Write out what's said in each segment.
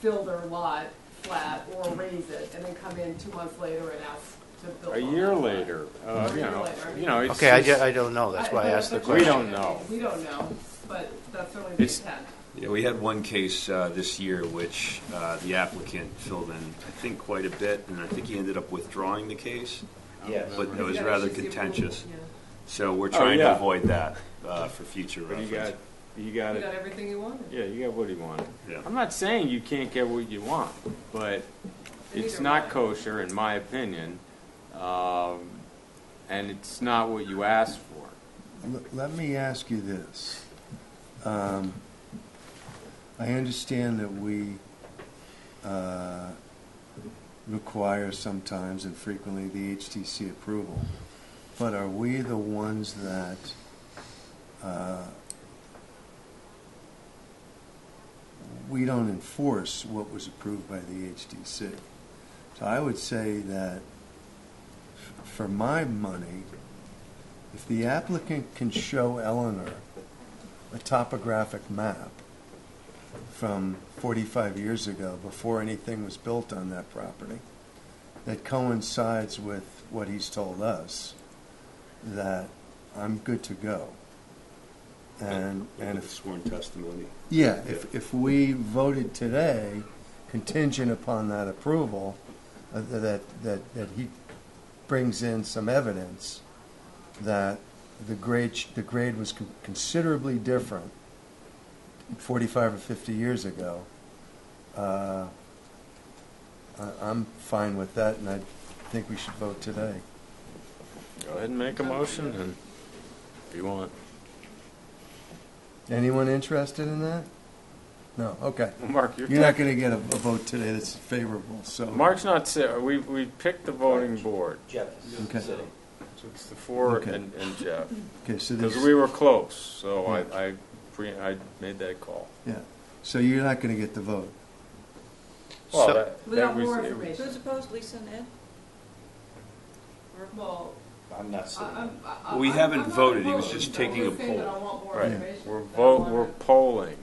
fill their lot flat or raise it, and then come in two months later and ask to build. a on year that lot. later, uh, A you year know, later. you know, it's. Okay, I, ju- it's- I don't know, that's why I but asked the that's We question. don't know. We don't know, but that's certainly the It's- intent. Yeah, we had one case uh, this year which uh, the applicant filled in, I think, quite a bit, and I think he ended up withdrawing the case. Yes. But it was Yeah, rather it's just the contentious. approval, So we're trying yeah. to avoid that uh, for future But you reference. got, you got yeah. You it. got everything you wanted. Yeah, you got what he wanted. Yeah. I'm not saying you can't get what you want, but it's Neither not one. kosher, in my opinion, um, and it's not what you asked for. L- Let me ask you this. Um, I understand that we uh, require sometimes and frequently the HTC approval, but are we the ones that uh, we don't enforce what was approved by the HTC? So I would say that f- for my money, if the applicant can show Eleanor a topographic map from 45 years ago, before anything was built on that property, that coincides with what he's told us, that I'm good to go. And, and if Sworn testimony. yeah, if, if we voted today contingent upon that approval, uh, that, that, that he brings in some evidence that the grade, sh- the grade was con- considerably different forty-five or fifty years ago, uh, I, I'm fine with that, and I think we should vote today. Go ahead and make a motion, and if you want. Anyone interested in that? No, okay. Mark, you're. You're not gonna get a, a vote today that's favorable, so. Mark's not, si- we, we picked the voting board. Jeff Okay. is sitting. It's the four Okay. and, and Jeff. Okay, so Because there's, we were close, so I, I, pre- I made that call. yeah, so you're not gonna get the vote. Well, So- that- We that got was- more it- information. Who's opposed, Lisa and Ed? Or- Well, I'm not I, sitting. I'm, I. We I'm- haven't I'm not voted. He was opposed. just I'm taking a saying that poll. I want more Right. information. We're That's vote, all I we're want. polling.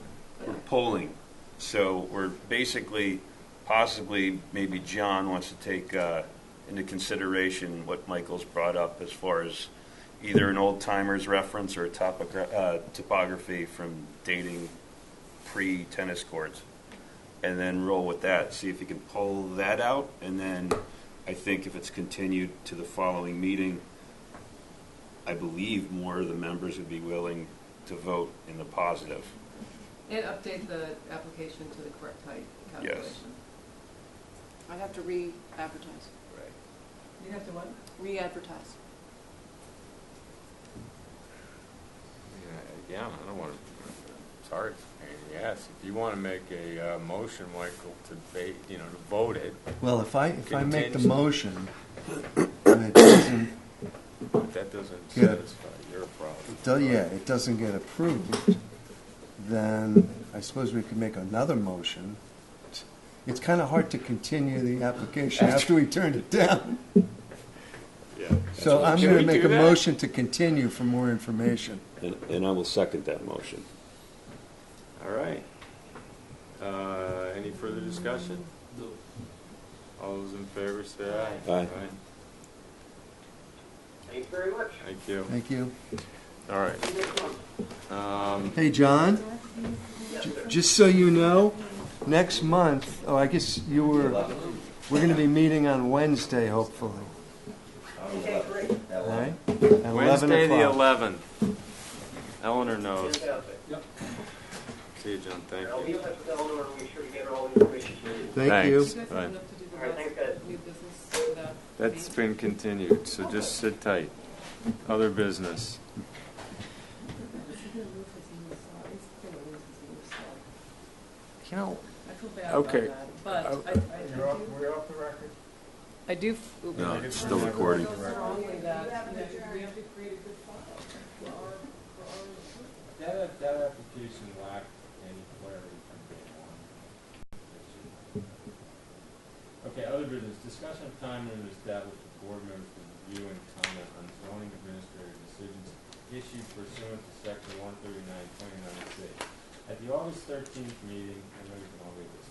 We're polling, so we're basically, possibly, maybe John wants to take uh, into consideration what Michael's brought up as far as either an old timer's reference or a topogra- uh, topography from dating pre-tennis courts, and then roll with that, see if you can pull that out, and then I think if it's continued to the following meeting, I believe more of the members would be willing to vote in the positive. And update the application to the correct height calculation. I'd have to re-advertise, Right. You have to what? re-advertise. Yeah, Again, I don't want to, sorry, yes, if you want to make a uh, motion, Michael, to, ba- you know, to vote it, Well, if I, if I make the Contingent. motion, and it doesn't, but that doesn't Yeah. satisfy your problem. do- yeah, it doesn't get approved, then I suppose we could make another motion. It's kind of hard to continue the application after we turned it down. Yeah. So I'm Can going we to make do a that? motion to continue for more information. And, and I will second that motion. All right. Uh, Any further discussion? All those in favor say aye. Aye. Aye. Thank you very much. Thank you. Thank you. All right. Um, Hey, John, j- just so you know, next month, oh, I guess you were, we're going to be meeting on Wednesday, hopefully, Okay, great. all right? At 11 Wednesday, the o'clock. 11th. Eleanor knows. Fantastic. See you, John, thank I'll be you. in touch with Eleanor and make sure to get her all the information she needs. Thank Thanks. you. You guys have Right. enough to do the All right, rest thanks, guys. new business without That's me? been continued, so just sit tight. Other business. You know, I feel bad about Okay. Oh. that, but I, I- I do- I do. f- No, it's still recording. I feel strongly that, you know, we have to create a good file for our, for our. That, that application lacked any clarity from day one. Okay, other business, discussion of time limits established for board members to review and comment on zoning administrative decisions issued pursuant to section one thirty-nine, twenty-nine C. At the August thirteenth meeting, I know you can all